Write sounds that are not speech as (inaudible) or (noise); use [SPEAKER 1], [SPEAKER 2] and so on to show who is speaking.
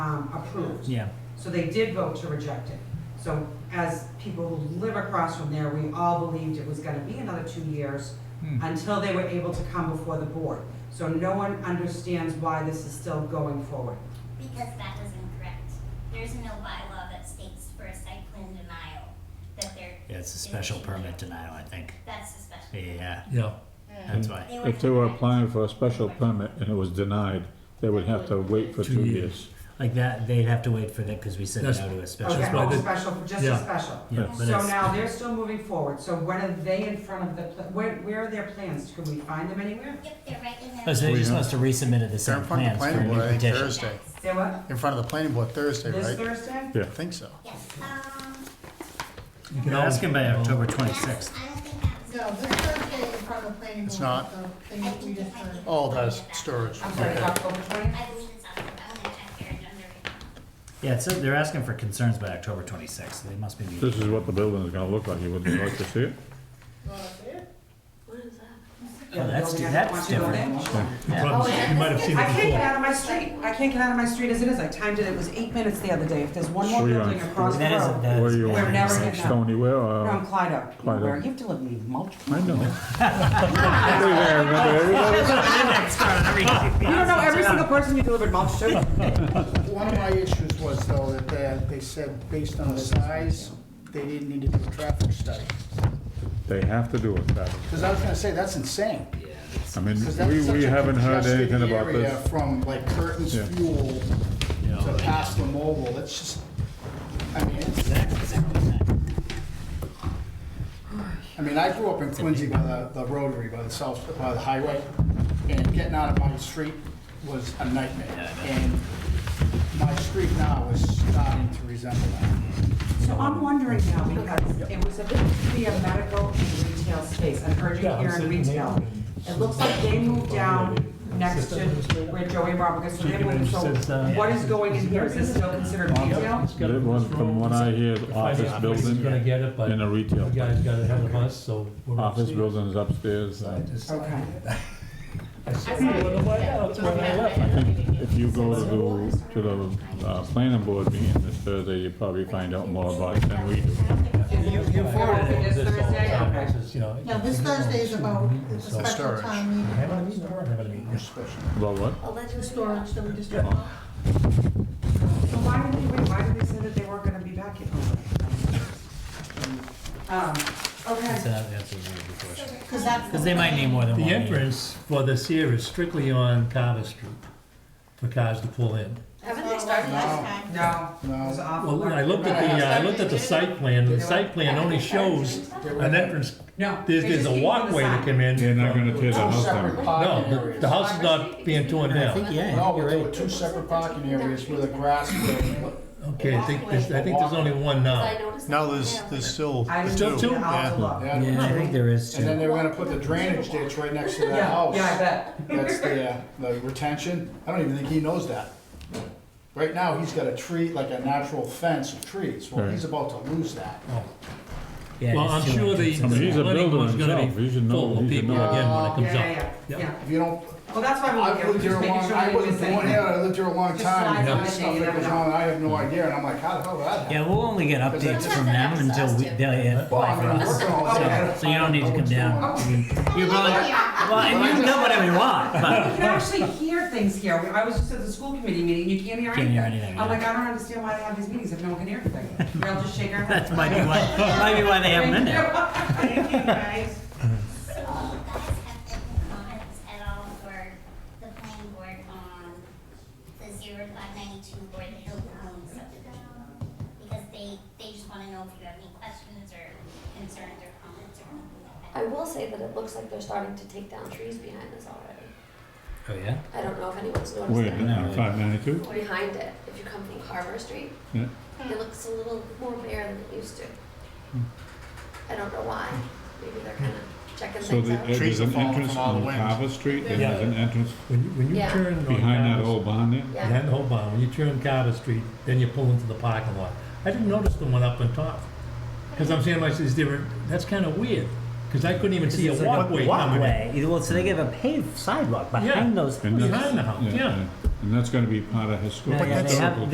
[SPEAKER 1] um, approved.
[SPEAKER 2] Yeah,
[SPEAKER 1] So they did vote to reject it. So as people who live across from there, we all believed it was gonna be another two years
[SPEAKER 2] Hmm.
[SPEAKER 1] until they were able to come before the board. So no one understands why this is still going forward.
[SPEAKER 3] Because that was incorrect. There's no bylaw that states for a site plan denial that there.
[SPEAKER 2] yeah, it's a special permit denial, I think.
[SPEAKER 3] That's a special.
[SPEAKER 2] Yeah,
[SPEAKER 4] Yeah,
[SPEAKER 2] that's why.
[SPEAKER 3] They were
[SPEAKER 5] If they were
[SPEAKER 3] correct.
[SPEAKER 5] applying for a special permit and it was denied, they would have to wait for
[SPEAKER 4] Two
[SPEAKER 5] two
[SPEAKER 4] years.
[SPEAKER 5] years.
[SPEAKER 2] Like that, they'd have to wait for that because we said no
[SPEAKER 4] That's-
[SPEAKER 2] to a special
[SPEAKER 1] Okay,
[SPEAKER 4] why
[SPEAKER 2] permit.
[SPEAKER 4] they-
[SPEAKER 1] special, just a
[SPEAKER 4] yeah.
[SPEAKER 1] special.
[SPEAKER 2] Yeah, but
[SPEAKER 1] So
[SPEAKER 2] it's,
[SPEAKER 1] now they're still moving forward. So when are they in front of the, pla- where, where are their plans? Can we find them anywhere?
[SPEAKER 3] Yep, they're right in
[SPEAKER 2] oh,
[SPEAKER 3] there.
[SPEAKER 2] so they
[SPEAKER 6] We
[SPEAKER 2] just
[SPEAKER 6] have-
[SPEAKER 2] must have resubmitted the
[SPEAKER 6] They're
[SPEAKER 2] same
[SPEAKER 6] in front of the
[SPEAKER 2] plans for a
[SPEAKER 6] planning board,
[SPEAKER 2] new
[SPEAKER 6] I think,
[SPEAKER 2] petition.
[SPEAKER 6] Thursday.
[SPEAKER 1] Say what?
[SPEAKER 6] In front of the planning board Thursday,
[SPEAKER 1] This
[SPEAKER 6] right?
[SPEAKER 1] Thursday?
[SPEAKER 6] I think so.
[SPEAKER 3] Yes, um.
[SPEAKER 4] you can
[SPEAKER 2] You're
[SPEAKER 4] always
[SPEAKER 2] asking by October
[SPEAKER 3] that's-
[SPEAKER 2] twenty-sixth.
[SPEAKER 3] I don't think that was.
[SPEAKER 7] No, this Thursday in front of the planning board.
[SPEAKER 6] It's not.
[SPEAKER 7] so they
[SPEAKER 3] I
[SPEAKER 7] need- we
[SPEAKER 3] think it
[SPEAKER 7] just
[SPEAKER 3] might be.
[SPEAKER 7] heard.
[SPEAKER 6] Oh, that's storage.
[SPEAKER 1] I'm sorry,
[SPEAKER 8] uh,
[SPEAKER 6] Okay.
[SPEAKER 1] October twentieth?
[SPEAKER 3] I believe it's October. I'm gonna check your agenda right now.
[SPEAKER 2] Yeah, so they're asking for concerns by October twenty-sixth. They must be
[SPEAKER 5] This
[SPEAKER 2] meeting.
[SPEAKER 5] is what the building is gonna look like, you would you like to see it?
[SPEAKER 7] Oh, that's it?
[SPEAKER 2] Oh, that's di- that's different.
[SPEAKER 4] You probably- you might have seen
[SPEAKER 1] I can't
[SPEAKER 4] it
[SPEAKER 1] get
[SPEAKER 4] before.
[SPEAKER 1] out of my street. I can't get out of my street as it is. I timed it. It was eight minutes the other day. If there's one more
[SPEAKER 5] Sure you are.
[SPEAKER 1] building across the
[SPEAKER 2] That is,
[SPEAKER 1] road.
[SPEAKER 2] that
[SPEAKER 5] Where
[SPEAKER 2] is.
[SPEAKER 5] you
[SPEAKER 2] an
[SPEAKER 1] are. We're never
[SPEAKER 2] intersection.
[SPEAKER 1] getting out.
[SPEAKER 5] Stony Way
[SPEAKER 1] No, I'm
[SPEAKER 5] or,
[SPEAKER 1] Clyde up.
[SPEAKER 5] Clyde Oak.
[SPEAKER 1] Where You have to live in mulch.
[SPEAKER 5] I know. (laughs)
[SPEAKER 1] You don't know every single person you delivered mulch to.
[SPEAKER 8] One of my issues was though that they, they said based on the size, they didn't need to do a traffic study.
[SPEAKER 5] They have to do it, that.
[SPEAKER 8] Because I was gonna say, that's insane.
[SPEAKER 5] I
[SPEAKER 8] 'Cause that's
[SPEAKER 5] mean, we,
[SPEAKER 8] such
[SPEAKER 5] we
[SPEAKER 8] a
[SPEAKER 5] haven't heard
[SPEAKER 8] congested
[SPEAKER 5] anything about
[SPEAKER 8] area
[SPEAKER 5] this.
[SPEAKER 8] From like Curtin's
[SPEAKER 5] Yeah.
[SPEAKER 8] Fuel to Pastor Mobile, it's just, I mean, it's, I mean, I grew up in Quincy by the, the rotary, by the south, by the highway. And getting out of my street was a nightmare. And my street now is starting to resemble that.
[SPEAKER 1] (laughs) So I'm wondering now, because it was a bit to be a medical and retail space, an urgent
[SPEAKER 4] Yeah, I'm
[SPEAKER 1] care and
[SPEAKER 4] sitting
[SPEAKER 1] retail.
[SPEAKER 4] there.
[SPEAKER 1] It looks like they moved down next to where Joey Rob, because so they're moving, so what is going in here? Is this still considered retail?
[SPEAKER 5] It was, from what I hear,
[SPEAKER 4] The
[SPEAKER 5] office
[SPEAKER 4] finance person's Gonna
[SPEAKER 5] building
[SPEAKER 4] get it, but
[SPEAKER 5] and a
[SPEAKER 4] you
[SPEAKER 5] retail.
[SPEAKER 4] guys got ahead of us, so. we're gonna
[SPEAKER 5] Office
[SPEAKER 4] see.
[SPEAKER 5] building is upstairs. uh,
[SPEAKER 1] Okay.
[SPEAKER 4] I saw it on the way out, that's when I left.
[SPEAKER 5] I think if you go to the, to the, uh, planning board meeting this Thursday, you probably find out more about it than we do.
[SPEAKER 1] You, you forwarded it this Thursday? Okay.
[SPEAKER 4] This is, you know,
[SPEAKER 7] No, this Thursday is about the special
[SPEAKER 6] Storage.
[SPEAKER 7] time meeting,
[SPEAKER 4] Having a meeting, or having a meeting.
[SPEAKER 5] About what?
[SPEAKER 7] the storage that we just talked about.
[SPEAKER 1] So why did they, wait, why did they say that they weren't gonna be back in? Um,
[SPEAKER 2] That's
[SPEAKER 1] okay.
[SPEAKER 2] an answer to your question.
[SPEAKER 7] Because that's.
[SPEAKER 2] Because they might need more than one.
[SPEAKER 4] The
[SPEAKER 2] meeting.
[SPEAKER 4] entrance for this here is strictly on Carter Street for cars to pull in.
[SPEAKER 7] Haven't they started last time?
[SPEAKER 1] No, it was awful.
[SPEAKER 4] Well, I looked at the, uh, I looked at the site plan, and the site plan only shows an entrance.
[SPEAKER 1] No.
[SPEAKER 4] There's,
[SPEAKER 1] they
[SPEAKER 4] there's
[SPEAKER 1] just keep on
[SPEAKER 4] a
[SPEAKER 1] the
[SPEAKER 4] walkway to
[SPEAKER 1] side.
[SPEAKER 4] come in.
[SPEAKER 5] They're not
[SPEAKER 4] from-
[SPEAKER 5] gonna tear the
[SPEAKER 8] Two
[SPEAKER 5] house down.
[SPEAKER 8] separate
[SPEAKER 4] No,
[SPEAKER 8] parking
[SPEAKER 4] the-
[SPEAKER 8] areas.
[SPEAKER 4] the house is not being torn down.
[SPEAKER 2] Yeah,
[SPEAKER 8] No, there were two separate parking areas with a grass green.
[SPEAKER 4] Okay, I think, there's- I think there's only one now.
[SPEAKER 6] No, there's, there's still
[SPEAKER 1] I
[SPEAKER 6] there's
[SPEAKER 1] didn't
[SPEAKER 6] two.
[SPEAKER 1] see it. I'll
[SPEAKER 6] Yeah.
[SPEAKER 1] have to look.
[SPEAKER 8] Yeah.
[SPEAKER 2] Yeah, I think there is
[SPEAKER 8] And then
[SPEAKER 2] two.
[SPEAKER 8] they were gonna put the drainage ditch right next to that
[SPEAKER 1] Yeah,
[SPEAKER 8] house.
[SPEAKER 1] yeah, I bet.
[SPEAKER 8] That's the, uh, the retention. I don't even think he knows that. Right now, he's got a tree, like a natural fence of trees. Well, he's about to lose that.
[SPEAKER 2] Yeah,
[SPEAKER 4] Well,
[SPEAKER 2] there's
[SPEAKER 4] I'm
[SPEAKER 2] two
[SPEAKER 4] sure the
[SPEAKER 2] entrances.
[SPEAKER 5] I mean, he's a
[SPEAKER 4] planning
[SPEAKER 5] builder
[SPEAKER 4] board's gonna
[SPEAKER 5] himself.
[SPEAKER 4] be
[SPEAKER 5] He should know-
[SPEAKER 4] full of
[SPEAKER 5] he should
[SPEAKER 4] people
[SPEAKER 5] know.
[SPEAKER 4] again when it comes
[SPEAKER 1] Yeah,
[SPEAKER 4] out.
[SPEAKER 1] yeah, yeah,
[SPEAKER 4] Yep.
[SPEAKER 1] yeah.
[SPEAKER 8] If you don't,
[SPEAKER 1] Well, that's why
[SPEAKER 8] I've
[SPEAKER 1] we're
[SPEAKER 8] lived
[SPEAKER 1] here,
[SPEAKER 8] here
[SPEAKER 1] just
[SPEAKER 8] a
[SPEAKER 1] making
[SPEAKER 8] long,
[SPEAKER 1] sure
[SPEAKER 8] I
[SPEAKER 1] we didn't miss
[SPEAKER 8] wasn't born here,
[SPEAKER 1] anything.
[SPEAKER 8] I lived here a long
[SPEAKER 1] Just
[SPEAKER 8] time.
[SPEAKER 1] size
[SPEAKER 8] and
[SPEAKER 1] of
[SPEAKER 8] This
[SPEAKER 1] anything,
[SPEAKER 8] stuff
[SPEAKER 1] you
[SPEAKER 8] that
[SPEAKER 1] never
[SPEAKER 8] goes
[SPEAKER 1] know.
[SPEAKER 8] on, I have no idea, and I'm like, how the hell did that happen?
[SPEAKER 2] Yeah, we'll only get updates from them until we, they'll, yeah,
[SPEAKER 8] Well, I mean, I'm
[SPEAKER 2] from us.
[SPEAKER 8] working all day.
[SPEAKER 2] So, so you don't need to come down. I mean, You're probably, well, and you can come whenever you want,
[SPEAKER 1] You
[SPEAKER 2] but
[SPEAKER 1] can actually hear things here. We- I was just at the school committee meeting, you can't hear
[SPEAKER 2] Can't
[SPEAKER 1] anything.
[SPEAKER 2] hear anything,
[SPEAKER 1] I'm
[SPEAKER 2] yeah.
[SPEAKER 1] like, I don't understand why they have these meetings if no one can hear anything. We're all just shaking our heads.
[SPEAKER 2] that might be why, might be why they haven't been there.
[SPEAKER 1] (laughs) Thank you, guys.
[SPEAKER 3] So you guys have any comments at all for the planning board on the zero five ninety-two or the Hill Home subdivision? Because they, they just wanna know if you have any questions or concerns or comments or anything like
[SPEAKER 9] I
[SPEAKER 3] that.
[SPEAKER 9] will say that it looks like they're starting to take down trees behind us already.
[SPEAKER 2] Oh, yeah?
[SPEAKER 9] I don't know if anyone's noticed
[SPEAKER 5] Wait,
[SPEAKER 9] that.
[SPEAKER 2] No.
[SPEAKER 5] five ninety-two?
[SPEAKER 9] Behind it, if you come from Carver Street,
[SPEAKER 5] Yeah.
[SPEAKER 9] it looks a little more bare than it used to. I don't know why. Maybe they're kind of checking
[SPEAKER 5] So
[SPEAKER 9] things
[SPEAKER 5] the-
[SPEAKER 9] out.
[SPEAKER 5] uh, there's
[SPEAKER 6] Trees are
[SPEAKER 5] an
[SPEAKER 6] falling
[SPEAKER 5] entrance
[SPEAKER 6] from all
[SPEAKER 5] on
[SPEAKER 6] the winds.
[SPEAKER 5] Carver Street, and there's
[SPEAKER 4] Yeah.
[SPEAKER 5] an entrance
[SPEAKER 4] When you, when you
[SPEAKER 9] Yeah.
[SPEAKER 4] turn on
[SPEAKER 5] behind that
[SPEAKER 4] Carter-
[SPEAKER 5] old barn there.
[SPEAKER 9] yeah.
[SPEAKER 4] Behind the whole barn, when you turn Carter Street, then you pull into the parking lot. I didn't notice the one up on top. Because I'm saying, like, is there, that's kind of weird, because I couldn't even see a
[SPEAKER 2] It's like
[SPEAKER 4] walkway coming in.
[SPEAKER 2] Walkway, well, so they give a paved sidewalk behind those.
[SPEAKER 5] And that's-
[SPEAKER 4] Behind the house, yeah.
[SPEAKER 5] And that's gonna be part of historical.
[SPEAKER 2] Yeah, yeah, they have-